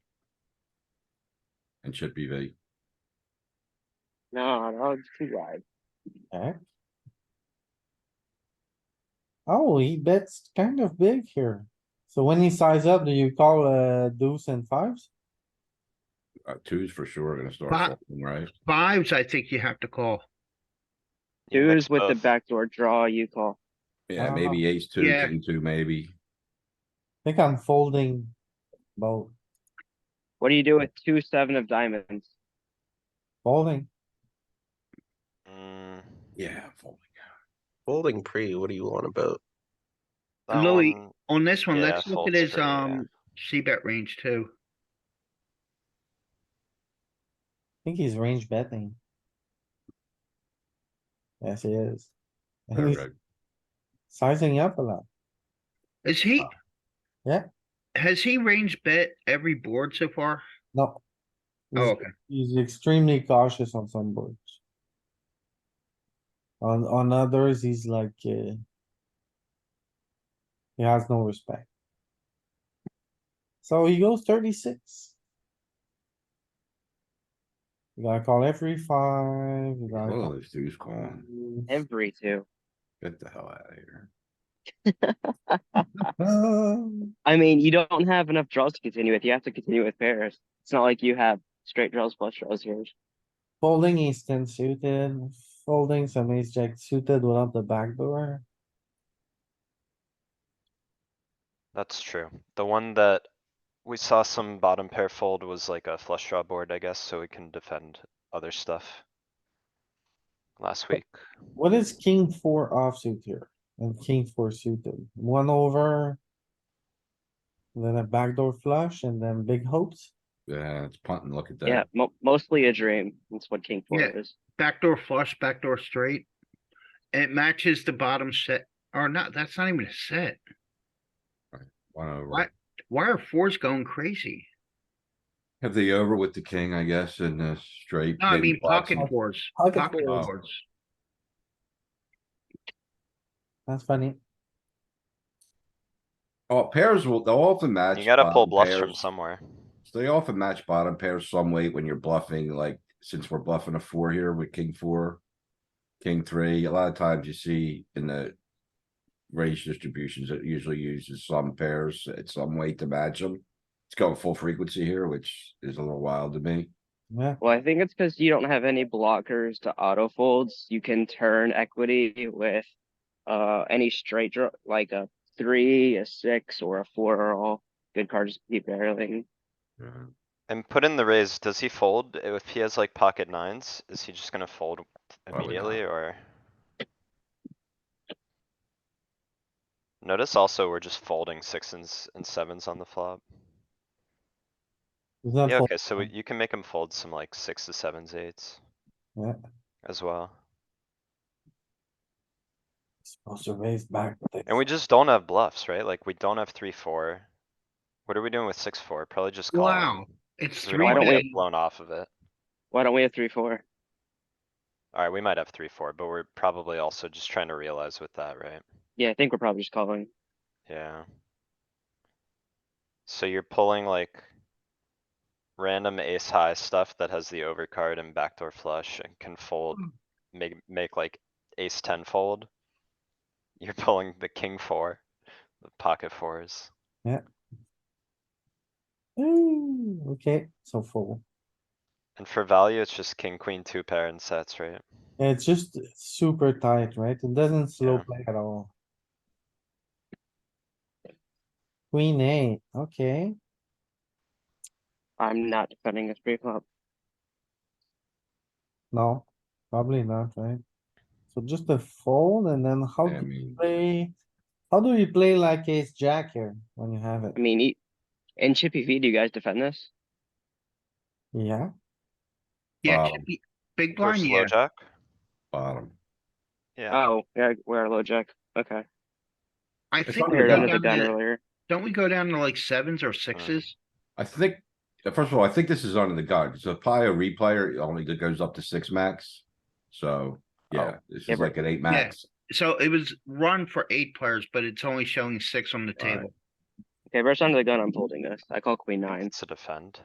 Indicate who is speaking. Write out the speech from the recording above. Speaker 1: and chip EV.
Speaker 2: No, no, it's too wide.
Speaker 3: Okay. Oh, he bets kind of big here. So when he size up, do you call uh deuce and fives?
Speaker 1: Uh, twos for sure are gonna start,
Speaker 4: Fi-
Speaker 1: folding, right?
Speaker 4: Fives, I think you have to call.
Speaker 2: Dudes with the
Speaker 5: tough.
Speaker 2: backdoor draw, you call.
Speaker 1: Yeah,
Speaker 3: Uh,
Speaker 1: maybe ace two,
Speaker 4: yeah.
Speaker 1: king two, maybe.
Speaker 3: Think I'm folding both,
Speaker 2: What do you do with two, seven of diamonds?
Speaker 3: folding.
Speaker 5: Mm,
Speaker 1: Yeah, I'm folding.
Speaker 6: Folding pre, what do you want about?
Speaker 5: that
Speaker 4: Louis,
Speaker 5: one-
Speaker 4: On this one,
Speaker 5: yeah,
Speaker 4: let's look at
Speaker 5: folds
Speaker 4: his,
Speaker 5: pretty, yeah.
Speaker 4: um, C bet range too.
Speaker 3: think he's range betting. Yes, he is. And he's
Speaker 1: Perfect.
Speaker 3: sizing up a lot.
Speaker 4: Is he?
Speaker 3: Uh, Yeah.
Speaker 4: Has he range bet every board so far?
Speaker 3: No.
Speaker 4: Oh,
Speaker 3: He's-
Speaker 4: okay.
Speaker 3: He's extremely cautious on some boards. On, on others, he's like, uh. He has no respect. So he goes thirty-six. You gotta call every five, you gotta
Speaker 1: Oh,
Speaker 3: call.
Speaker 1: this dude's calling.
Speaker 2: Every two.
Speaker 1: Get the hell out of here.
Speaker 3: Um,
Speaker 2: I mean, you don't have enough draws to continue with. You have to continue with pairs. It's not like you have straight draws plus draws here.
Speaker 3: Folding ace ten suited, folding some ace jack suited without the backdoor.
Speaker 5: That's true. The one that we saw some bottom pair fold was like a flush draw board, I guess, so we can defend other stuff. Last week,
Speaker 3: What is king four offsuit here? And king four suited, one over. Then a backdoor flush and then big hopes.
Speaker 1: Yeah, it's punting, look at that.
Speaker 2: Yeah, mo- mostly a dream. That's what king four
Speaker 4: Yeah.
Speaker 2: is.
Speaker 4: Backdoor flush, backdoor straight. It matches the bottom set, or not, that's not even a set.
Speaker 1: One over.
Speaker 4: What? Why are fours going crazy?
Speaker 1: Have the over with the king, I guess, and the straight.
Speaker 4: No, I
Speaker 1: maybe
Speaker 4: mean
Speaker 1: blocks
Speaker 4: pocket
Speaker 1: him.
Speaker 4: fours,
Speaker 3: Pocket
Speaker 4: pocket
Speaker 1: fours.
Speaker 4: fours.
Speaker 3: That's funny.
Speaker 1: Oh, pairs will, they'll often match.
Speaker 5: you gotta pull
Speaker 1: bottom
Speaker 5: bluffs from
Speaker 1: pairs.
Speaker 5: somewhere.
Speaker 1: They often match bottom pairs some way when you're bluffing, like, since we're bluffing a four here with king four. King three, a lot of times you see in the. Raise distributions, it usually uses some pairs, it's some way to match them. It's going full frequency here, which is a little wild to me.
Speaker 3: Yeah,
Speaker 2: Well, I think it's because you don't have any blockers to auto folds. You can turn equity with uh any straight draw, like a three, a six, or a four are all good cards to keep barreling.
Speaker 5: Mm-hmm. And put in the raise, does he fold? If he has like pocket nines, is he just gonna fold
Speaker 1: not.
Speaker 5: immediately or? Notice also we're just folding sixes and sevens on the flop.
Speaker 3: he's not
Speaker 5: Yeah,
Speaker 3: fold-
Speaker 5: okay, so we- you can make him fold some like sixes, sevens, eights.
Speaker 3: Yeah.
Speaker 5: As well.
Speaker 3: supposed to raise back. with it.
Speaker 5: And we just don't have bluffs, right? Like, we don't have three, four. What are we doing with six, four? Probably just calling.
Speaker 4: Wow, it's
Speaker 5: 'cause We don't
Speaker 4: three
Speaker 2: Why
Speaker 5: wanna
Speaker 2: don't we-
Speaker 4: bet.
Speaker 5: get blown off of it.
Speaker 2: Why don't we have three, four?
Speaker 5: Alright, we might have three, four, but we're probably also just trying to realize with that, right?
Speaker 2: Yeah, I think we're probably just calling.
Speaker 5: Yeah. So you're pulling like. Random ace high stuff that has the overcard and backdoor flush and can fold, make, make like ace ten fold. You're pulling the king four, the pocket fours.
Speaker 3: Ooh, Okay, so fold.
Speaker 5: And for value, it's just king, queen, two pair and sets, right?
Speaker 3: It's just super tight, right? It doesn't slow
Speaker 5: Yeah.
Speaker 3: play at all. Queen eight, okay.
Speaker 2: I'm not defending this pre flop.
Speaker 3: No, probably not, right? So just a fold and then how
Speaker 1: I
Speaker 3: do you
Speaker 1: mean,
Speaker 3: play? How do you play like ace jack here when you have it?
Speaker 2: I mean, e- in Chippy V, do you guys defend this?
Speaker 3: Yeah,
Speaker 4: Yeah,
Speaker 1: Wow.
Speaker 4: chippy- big
Speaker 5: Or
Speaker 4: blind,
Speaker 5: slow
Speaker 4: yeah.
Speaker 5: jack?
Speaker 1: bottom.
Speaker 5: Yeah,
Speaker 2: Oh, yeah, we're low jack. Okay.
Speaker 4: I
Speaker 1: It's
Speaker 4: think
Speaker 1: not
Speaker 4: we
Speaker 2: We were
Speaker 1: Yeah.
Speaker 4: go
Speaker 2: under
Speaker 1: Yeah.
Speaker 2: the
Speaker 4: down
Speaker 2: gun
Speaker 4: to,
Speaker 2: earlier.
Speaker 4: don't we go down to like sevens or sixes?
Speaker 1: I think, uh, first of all, I think this is under the gun, so probably a replayer only that goes up to six max. So, yeah, this
Speaker 2: Oh, Yeah,
Speaker 1: is
Speaker 2: but-
Speaker 1: like an eight max.
Speaker 4: So it was run for eight players, but it's only showing six on the
Speaker 1: Alright.
Speaker 4: table.
Speaker 2: Okay, we're just under the gun. I'm folding this. I call queen nine.
Speaker 5: it's a defend.